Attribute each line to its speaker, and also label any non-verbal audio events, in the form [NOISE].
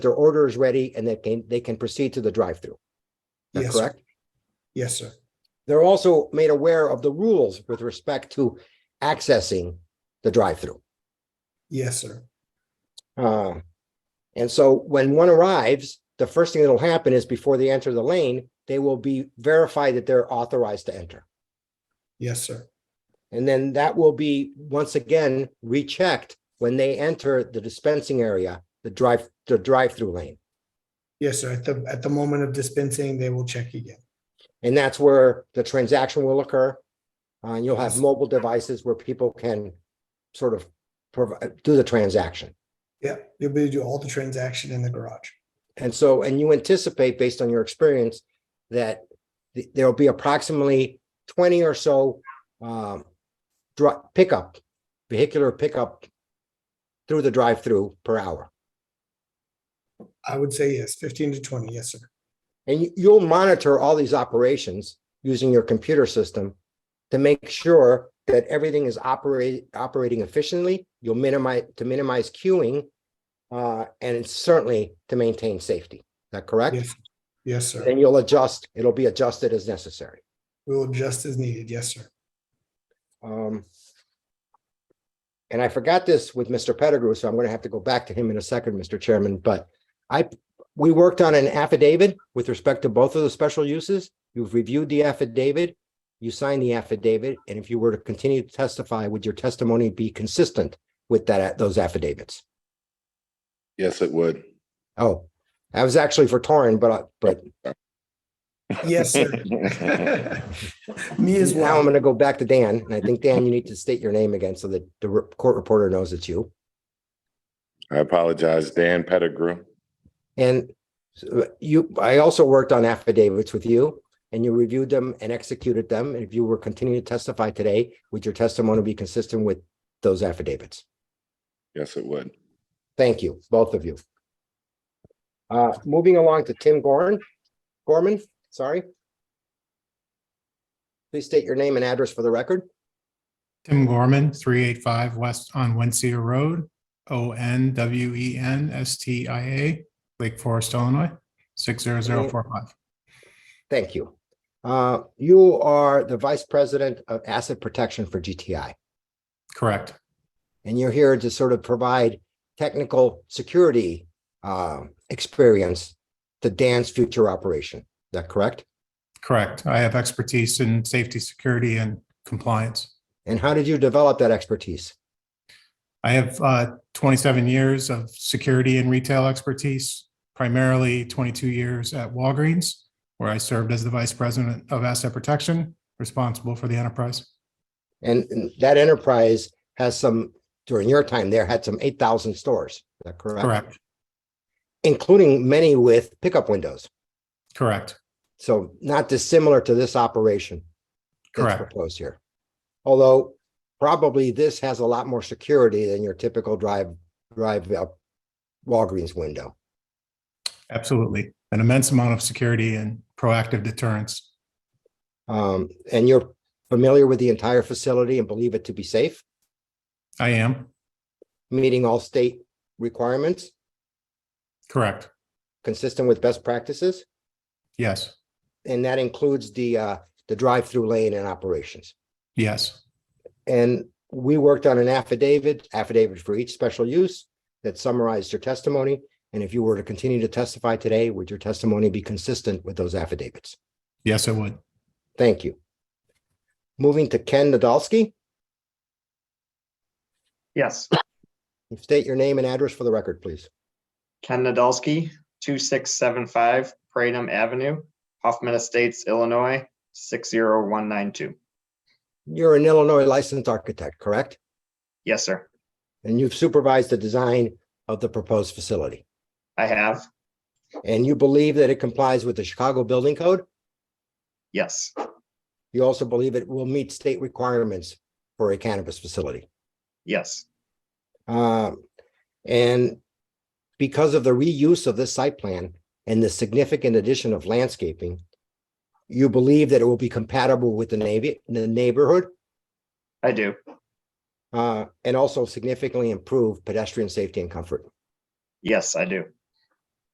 Speaker 1: their order is ready and they can, they can proceed to the drive-through. Is that
Speaker 2: Yes, sir.
Speaker 1: correct?
Speaker 2: Yes, sir.
Speaker 1: They're also made aware of the rules with respect to accessing the drive-through.
Speaker 2: Yes, sir.
Speaker 1: Uh, And so when one arrives, the first thing that'll happen is before they enter the lane, they will be verified that they're authorized to enter.
Speaker 2: Yes, sir.
Speaker 1: And then that will be once again rechecked when they enter the dispensing area, the drive, the drive-through lane.
Speaker 2: Yes, sir. At the, at the moment of dispensing, they will check again.
Speaker 1: And that's where the transaction will occur. Uh, And you'll have
Speaker 2: Yes.
Speaker 1: mobile devices where people can sort of provide, do the transaction.
Speaker 2: Yeah, you'll be able to do all the transaction in the garage.
Speaker 1: And so, and you anticipate based on your experience that th- there'll be approximately twenty or so um, dri pickup, vehicular pickup through the drive-through per hour.
Speaker 2: I would say yes, fifteen to twenty. Yes, sir.
Speaker 1: And you- you'll monitor all these operations using your computer system to make sure that everything is operate, operating efficiently. You'll minimize, to minimize queuing, uh, and certainly to maintain safety. Is that correct?
Speaker 2: Yes, yes, sir.
Speaker 1: And you'll adjust, it'll be adjusted as necessary.
Speaker 2: We will adjust as needed. Yes, sir.
Speaker 1: Um, and I forgot this with Mr. Pettigrew, so I'm going to have to go back to him in a second, Mr. Chairman, but I, we worked on an affidavit with respect to both of the special uses. You've reviewed the affidavit, you signed the affidavit, and if you were to continue to testify, would your testimony be consistent with that, those affidavits?
Speaker 3: Yes, it would. [LAUGHS]
Speaker 1: Oh, I was actually for Torrin, but, I- but
Speaker 2: Yes, sir. Me as
Speaker 1: now I'm
Speaker 2: well.
Speaker 1: going to go back to Dan, and I think, Dan, you need to state your name again so that the re- court reporter knows it's you.
Speaker 3: I apologize, Dan Pettigrew.
Speaker 1: And so you, I also worked on affidavits with you and you reviewed them and executed them. And if you were continuing to testify today, would your testimony be consistent with those affidavits?
Speaker 3: Yes, it would.
Speaker 1: Thank you, both of you. Uh, moving along to Tim Gorman, Gorman, sorry. Please state your name and address for the record.
Speaker 4: Tim Gorman, three eight five West on Wensia Road, O N W E N S T I A, Lake Forest, Illinois, six zero zero four five.
Speaker 1: Thank you. Uh, you are the Vice President of Asset Protection for GTI.
Speaker 4: Correct.
Speaker 1: and you're here to sort of provide technical security uh, experience to Dan's future operation. Is that correct?
Speaker 4: Correct. I have expertise in safety, security, and compliance.
Speaker 1: And how did you develop that expertise?
Speaker 4: I have uh, twenty-seven years of security and retail expertise, primarily twenty-two years at Walgreens, where I served as the Vice President of Asset Protection, responsible for the enterprise.
Speaker 1: And and that enterprise has some, during your time there, had some 8,000 stores. Is that correct?
Speaker 4: Correct.
Speaker 1: Including many with pickup windows.
Speaker 4: Correct.
Speaker 1: So not dissimilar to this operation. that's
Speaker 4: Correct.
Speaker 1: Proposed here. Although probably this has a lot more security than your typical drive, drive up Walgreens window.
Speaker 4: Absolutely. An immense amount of security and proactive deterrence.
Speaker 1: Um, and you're familiar with the entire facility and believe it to be safe,
Speaker 4: I am,
Speaker 1: meeting all state requirements,
Speaker 4: correct.
Speaker 1: consistent with best practices,
Speaker 4: Yes,
Speaker 1: and that includes the uh, the drive-through lane and operations.
Speaker 4: yes,
Speaker 1: And we worked on an affidavit, affidavit for each special use that summarized your testimony. And if you were to continue to testify today, would your testimony be consistent with those affidavits?
Speaker 4: yes, it would.
Speaker 1: Thank you. Moving to Ken Nadolski,
Speaker 5: Yes,
Speaker 1: state your name and address for the record, please.
Speaker 5: Ken Nadolski, two six seven five Pratum Avenue, Hoffman Estates, Illinois, six zero one nine two.
Speaker 1: You're an Illinois licensed architect, correct?
Speaker 5: Yes, sir.
Speaker 1: And you've supervised the design of the proposed facility.
Speaker 5: I have.
Speaker 1: And you believe that it complies with the Chicago Building Code.
Speaker 5: Yes,
Speaker 1: You also believe it will meet state requirements for a cannabis facility.
Speaker 5: yes,
Speaker 1: Um, And because of the reuse of this site plan and the significant addition of landscaping, you believe that it will be compatible with the navy, the neighborhood,
Speaker 5: I do.
Speaker 1: uh, and also significantly improve pedestrian safety and comfort.
Speaker 5: Yes, I do.